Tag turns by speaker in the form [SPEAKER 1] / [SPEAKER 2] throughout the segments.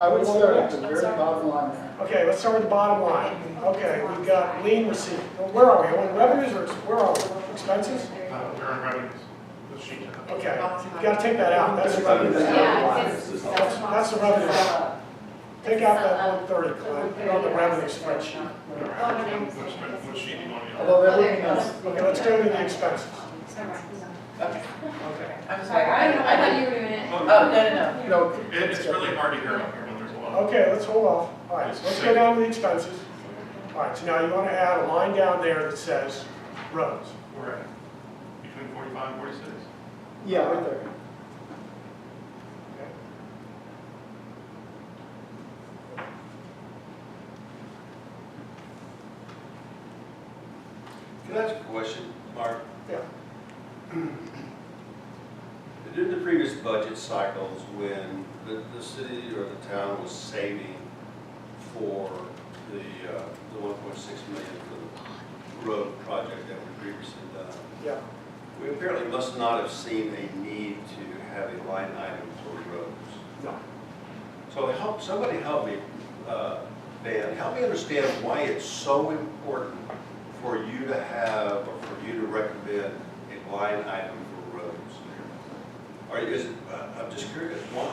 [SPEAKER 1] I would start at the very bottom line there.
[SPEAKER 2] Okay, let's start with the bottom line. Okay, we've got lean receipt. Well, Where are we? On revenues or, ex- where are we? Expenses?
[SPEAKER 3] Uh, we're in revenues, the sheet.
[SPEAKER 2] Okay, you gotta take that out. That's the revenue.
[SPEAKER 4] Yeah, it's.
[SPEAKER 2] That's, that's the revenue. Take out that one thirty, Clint, put on the revenue spreadsheet.
[SPEAKER 3] Which, which sheet do you want me on?
[SPEAKER 1] Although that would be nice.
[SPEAKER 2] Okay, let's go to the expenses.
[SPEAKER 4] Okay,
[SPEAKER 2] Okay.
[SPEAKER 4] I'm sorry,
[SPEAKER 5] Sorry,
[SPEAKER 4] I,
[SPEAKER 5] I don't know,
[SPEAKER 4] I
[SPEAKER 5] I
[SPEAKER 4] thought
[SPEAKER 5] thought
[SPEAKER 4] you,
[SPEAKER 5] you were doing it.
[SPEAKER 4] oh, no, no, no.
[SPEAKER 1] You know,
[SPEAKER 3] It, it's really hard to hear up here when there's a lot.
[SPEAKER 2] Okay, let's hold off. All right, so let's go down to the expenses. All right, so now you wanna add a line down there that says roads.
[SPEAKER 3] We're at between forty-five and forty-six.
[SPEAKER 1] yeah, right there.
[SPEAKER 6] Can I ask a question, Mark?
[SPEAKER 2] Yeah.
[SPEAKER 6] In the previous budget cycles, when the, the city or the town was saving for the, uh, the one point six million for the road project that we previously done,
[SPEAKER 2] Yeah.
[SPEAKER 6] we apparently must not have seen a need to have a line item for roads.
[SPEAKER 2] No.
[SPEAKER 6] So help, somebody help me, uh, Dan, help me understand why it's so important for you to have, or for you to recommend a line item for roads. Or is, it- uh, I'm just curious, why?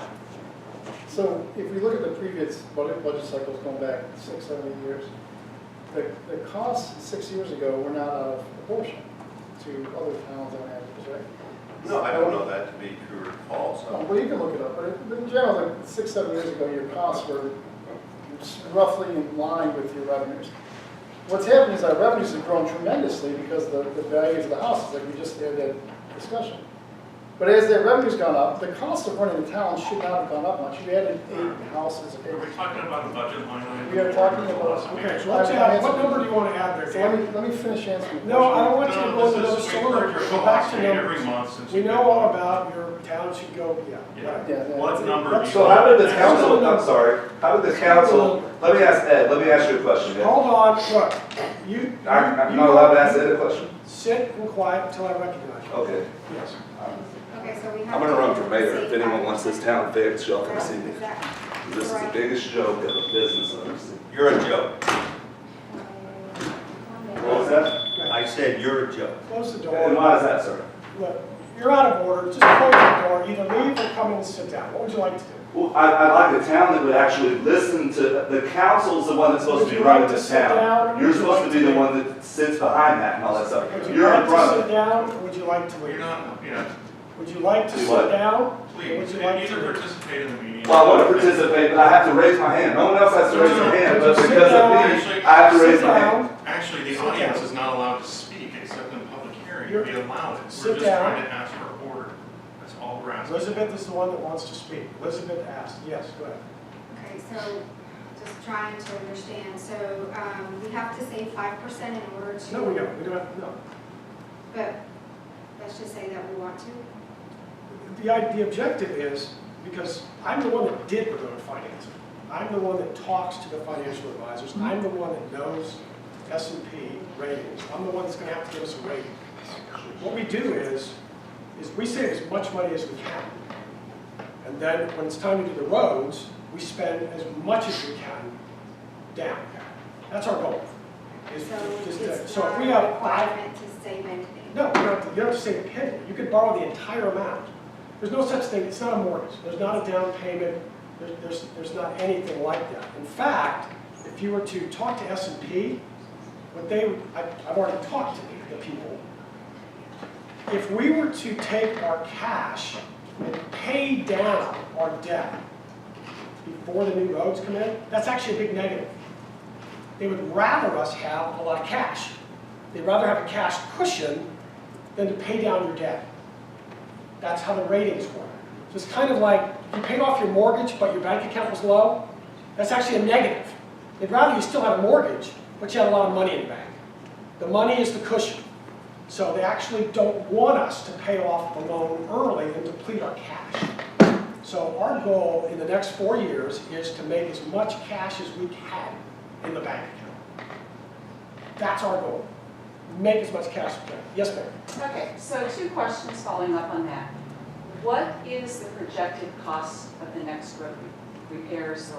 [SPEAKER 1] So if we look at the previous budget, budget cycles going back six, seven, eight years, the, the costs six years ago were not out of proportion to other towns on average, right?
[SPEAKER 6] No, I don't know that to be true or false.
[SPEAKER 1] So, Well, you can look it up, but in general, like six, seven years ago, your costs were roughly in line with your revenues. What's happened is our revenues have grown tremendously because the, the values of the houses, like we just had that discussion. But as that revenue's gone up, the cost of running the town should not have gone up much. You added eight houses.
[SPEAKER 3] Are we talking about a budget line item?
[SPEAKER 1] We are talking about-
[SPEAKER 3] Philosophy.
[SPEAKER 2] Okay, so let's add, what number do you wanna add there,
[SPEAKER 1] So let
[SPEAKER 2] Dan?
[SPEAKER 1] me, let me finish answering. the
[SPEAKER 2] No, I don't
[SPEAKER 1] question.
[SPEAKER 2] want you to go
[SPEAKER 3] No,
[SPEAKER 2] to
[SPEAKER 3] this
[SPEAKER 2] those
[SPEAKER 3] is, we've heard your
[SPEAKER 2] numbers, go back to
[SPEAKER 3] philosophy every
[SPEAKER 2] numbers.
[SPEAKER 3] month since.
[SPEAKER 2] We
[SPEAKER 3] you've
[SPEAKER 2] know
[SPEAKER 3] been-
[SPEAKER 2] all about your town should go, yeah, right.
[SPEAKER 1] Yeah, yeah.
[SPEAKER 3] What number do you?
[SPEAKER 7] So how did the
[SPEAKER 3] want?
[SPEAKER 7] council, I'm sorry, how did the council, let me ask Ed, let me ask you a question, Ed.
[SPEAKER 2] Hold on, look, you.
[SPEAKER 7] I'm, I'm not allowed to ask Ed a question?
[SPEAKER 2] Sit and quiet until I recognize you.
[SPEAKER 7] Okay.
[SPEAKER 2] Yes.
[SPEAKER 5] Okay, so we have.
[SPEAKER 7] I'm gonna run for mayor, if anyone wants this town fixed, y'all come see me.
[SPEAKER 5] Exactly.
[SPEAKER 7] This is the biggest joke of a business I've ever seen.
[SPEAKER 6] You're a joke.
[SPEAKER 8] uh,
[SPEAKER 7] What was that?
[SPEAKER 6] I said you're a joke.
[SPEAKER 2] Close the
[SPEAKER 7] And why is
[SPEAKER 2] door.
[SPEAKER 7] that, sir?
[SPEAKER 2] Look, you're out of order, just close the door, either leave or come in and sit down. What would you like to do?
[SPEAKER 7] Well, I, I like a town that would actually listen to, the council's the one that's supposed to be running this town. You're supposed to be the one that sits behind that and all that stuff.
[SPEAKER 2] Would you
[SPEAKER 7] You're
[SPEAKER 2] like
[SPEAKER 7] in
[SPEAKER 2] to
[SPEAKER 7] front
[SPEAKER 2] sit
[SPEAKER 7] of it.
[SPEAKER 2] down or would you like to
[SPEAKER 3] You're
[SPEAKER 2] leave?
[SPEAKER 3] not, yeah,
[SPEAKER 2] Would you like to
[SPEAKER 7] Do
[SPEAKER 2] sit
[SPEAKER 7] what?
[SPEAKER 2] down? or Would
[SPEAKER 3] please,
[SPEAKER 2] you like
[SPEAKER 3] either
[SPEAKER 2] to?
[SPEAKER 3] participate in the meeting.
[SPEAKER 7] Well, I want to participate, but I have to raise my hand. No one else has to raise their hand, but because of me, I have to raise
[SPEAKER 2] Sit
[SPEAKER 7] my hand.
[SPEAKER 2] down,
[SPEAKER 3] Actually, the
[SPEAKER 2] Sit
[SPEAKER 3] audience
[SPEAKER 2] down.
[SPEAKER 3] is not allowed to speak except in public hearing,
[SPEAKER 2] You're-
[SPEAKER 3] we allow it. We're
[SPEAKER 2] Sit
[SPEAKER 3] just
[SPEAKER 2] down.
[SPEAKER 3] trying to ask for order, that's all we're asking.
[SPEAKER 2] Elizabeth is the one that wants to speak. Elizabeth asked, yes, go ahead.
[SPEAKER 8] Okay, so just trying to understand, so um, we have to save five percent in order to.
[SPEAKER 2] No, we don't, we don't, no.
[SPEAKER 8] But let's just say that we want to.
[SPEAKER 2] The, i- the objective is, because I'm the one that did Ramona Finance. I'm the one that talks to the financial advisors. I'm the one that knows S and P ratings. I'm the one that's gonna have to give us a rating. What we do is, is we save as much money as we can. And then when it's time to do the roads, we spend as much as we can down. That's our goal. is
[SPEAKER 8] So
[SPEAKER 2] to- is to-
[SPEAKER 8] it's
[SPEAKER 2] So if
[SPEAKER 8] not
[SPEAKER 2] we
[SPEAKER 8] a
[SPEAKER 2] have five
[SPEAKER 8] requirement to save anything.
[SPEAKER 2] no, you don't have to, you don't have to save a penny. You could borrow the entire amount. There's no such thing, it's not a mortgage. There's not a down payment. There- There's, there's not anything like that. In fact, if you were to talk to S and P, what they, I- I've already talked to the people. If we were to take our cash and pay down our debt before the new roads come in, that's actually a big negative. They would rather us have a lot of cash. They'd rather have a cash cushion than to pay down your debt. That's how the ratings work. So it's kind of like you paid off your mortgage, but your bank account was low. That's actually a negative. They'd rather you still had a mortgage, but you had a lot of money in the bank. The money is the cushion. So they actually don't want us to pay off the loan early and deplete our cash. So our goal in the next four years is to make as much cash as we can in the bank account. That's our goal. Make as much cash as we can. Yes, ma'am?
[SPEAKER 9] Okay, so two questions following up on that. What is the projected cost of the next road repairs